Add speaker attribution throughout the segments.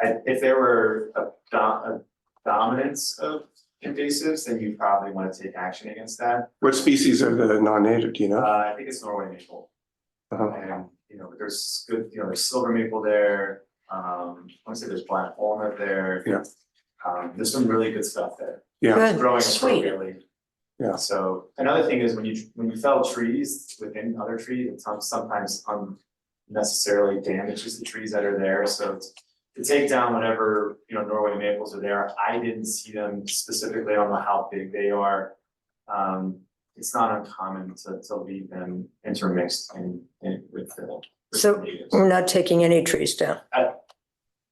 Speaker 1: I, if there were a do- a dominance of invasives, then you probably wanna take action against that.
Speaker 2: What species are the non-native, do you
Speaker 1: Uh,
Speaker 2: know?
Speaker 1: I think it's Norway maple,
Speaker 2: Uh-huh.
Speaker 1: and, you know, there's good, you know, there's silver maple there, um, I wanna say there's black walnut there.
Speaker 2: Yeah.
Speaker 1: Um, there's some really good stuff there,
Speaker 2: Yeah,
Speaker 1: growing
Speaker 3: Good, sweet.
Speaker 1: appropriately.
Speaker 2: Yeah.
Speaker 1: So, another thing is when you, when you fell trees within other trees, it some- sometimes unnecessarily damages the trees that are there, so it's to take down whatever, you know, Norway maples are there, I didn't see them specifically, I don't know how big they are. Um, it's not uncommon to to leave them intermixed in in with the with the
Speaker 3: So-
Speaker 1: natives.
Speaker 3: We're not taking any trees down.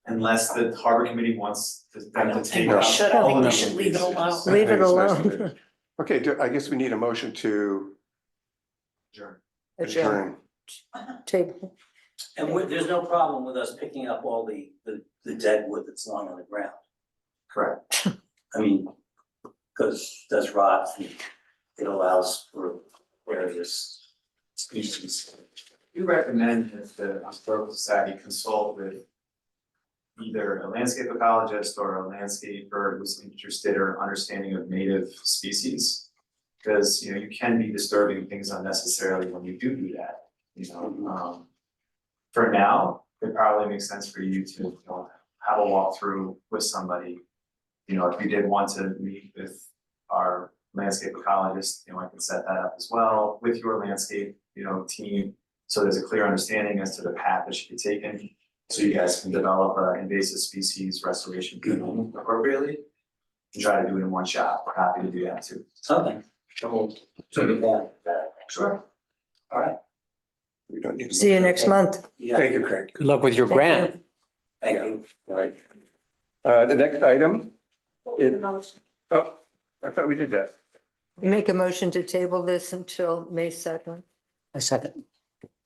Speaker 1: Unless the harbor committee wants to- them to take
Speaker 2: we
Speaker 1: out
Speaker 4: should. I
Speaker 1: all
Speaker 4: think
Speaker 1: of
Speaker 4: we
Speaker 1: them.
Speaker 4: should leave it alone.
Speaker 2: I
Speaker 3: Leave
Speaker 2: think
Speaker 3: it
Speaker 2: it's nice
Speaker 3: alone.
Speaker 2: that it- Okay, do- I guess we need a motion to
Speaker 1: Sure.
Speaker 2: adjourn.
Speaker 3: Take,
Speaker 4: And we- there's no problem with us picking up all the, the, the dead wood that's lying on the ground.
Speaker 1: Correct,
Speaker 4: I mean, because that's rot and it allows for various species.
Speaker 1: we recommend that the historical society consult with either a landscape ecologist or a landscaper who's interested or understanding of native species. Because, you know, you can be disturbing things unnecessarily when you do do that, you know, um. For now, it probably makes sense for you to, you know, have a walkthrough with somebody. You know, if you did want to meet with our landscape ecologist, you know, I can set that up as well with your landscape, you know, team. So there's a clear understanding as to the path that should be taken, so you guys can develop an invasive species restoration plan appropriately. And try to do it in one shot, we're happy to do that too.
Speaker 4: Something. Sure. Sure. All right.
Speaker 2: We don't need. a
Speaker 3: see you next month.
Speaker 2: motion.
Speaker 4: Yeah,
Speaker 2: Thank you, Craig.
Speaker 5: Good luck with your
Speaker 3: Thank
Speaker 5: grant.
Speaker 3: you.
Speaker 4: thank you. All right.
Speaker 2: Uh, the next item. is- Oh, I thought we did that.
Speaker 3: Make a motion to table this until May second.
Speaker 5: A second.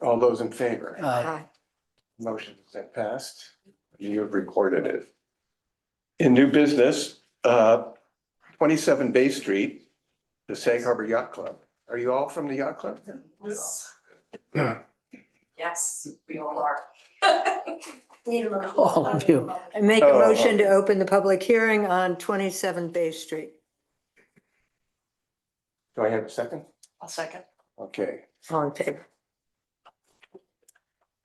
Speaker 2: All those in favor,
Speaker 5: Uh,
Speaker 2: motion is passed. You have recorded it. In new business, uh, twenty-seven Bay Street, the Sag Harbor Yacht Club. Are you all from the yacht club?
Speaker 6: Yes, we all are.
Speaker 5: all of you.
Speaker 3: I make a
Speaker 2: Oh.
Speaker 3: motion to open the public hearing on twenty-seven Bay Street.
Speaker 2: Do I have a second?
Speaker 6: I'll second.
Speaker 2: Okay,
Speaker 3: All in favor?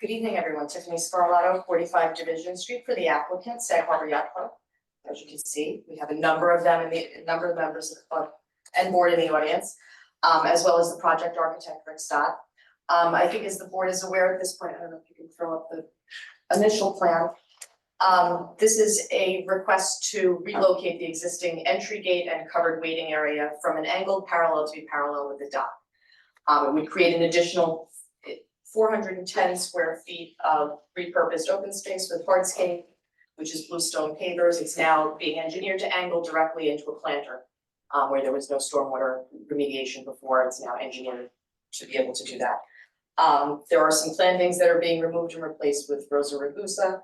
Speaker 6: Good evening, everyone. Tiffany Scarlato, forty-five Division Street for the applicant, Sag Harbor Yacht Club. As you can see, we have a number of them in the, a number of members of the club and board in the audience, um, as well as the project architect, Rick Stott. Um, I think as the board is aware at this point, I don't know if you can throw up the initial plan. Um, this is a request to relocate the existing entry gate and covered waiting area from an angle parallel to be parallel with the dock. Um, it would create an additional four hundred and ten square feet of repurposed open space with hardscape, which is bluestone pavers, it's now being engineered to angle directly into a planter, um, where there was no stormwater remediation before, it's now engineered to be able to do that. Um, there are some plantings that are being removed and replaced with Rosa rugosa.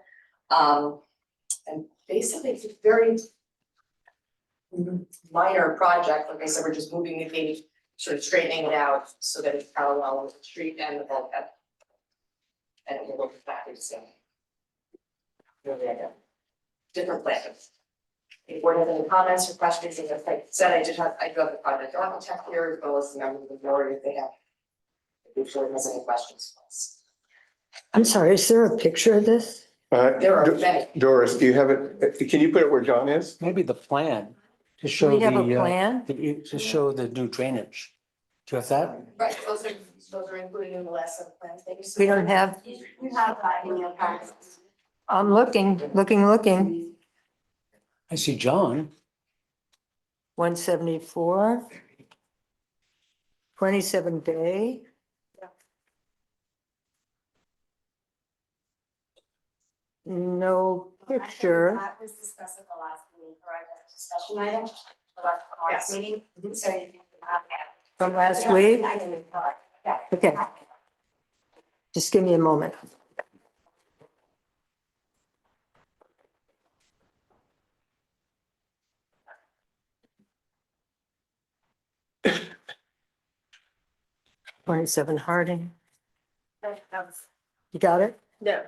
Speaker 6: Um, and basically, it's a very minor project, like I said, we're just moving the gate sort of straightening it out so that it's parallel with the street and the bulkhead. And it will look exactly the same. Really, I don't- Different plans. If board has any comments or questions, as I said, I did have, I do have the project architect here, as well as the members of the board if they have. If the board has any questions. for us.
Speaker 3: I'm sorry, is there a picture of this?
Speaker 2: uh,
Speaker 6: There are
Speaker 2: Do-
Speaker 6: many.
Speaker 2: Doris, do you have it? Can you put it where John is?
Speaker 5: Maybe the plan
Speaker 3: Do
Speaker 5: to show
Speaker 3: we
Speaker 5: the,
Speaker 3: have a
Speaker 5: uh,
Speaker 3: plan?
Speaker 5: the- to show the new drainage. Do you have that?
Speaker 6: Right, those are, those are included in the last set of plans, thank you so
Speaker 3: We
Speaker 6: much.
Speaker 3: don't have,
Speaker 6: You have that in your packets.
Speaker 3: I'm looking, looking, looking.
Speaker 5: I see John.
Speaker 3: One seventy-four. Twenty-seven Bay. No
Speaker 7: I think
Speaker 3: picture.
Speaker 7: That was discussed at the last meeting, correct, That's a discussion item, about the
Speaker 6: Yes.
Speaker 7: last meeting, so you can have that.
Speaker 3: From last week?
Speaker 7: I uh, didn't tell it. yeah.
Speaker 3: Okay, just give me a moment. Twenty-seven Harding,
Speaker 7: That was-
Speaker 3: you got it?
Speaker 6: No,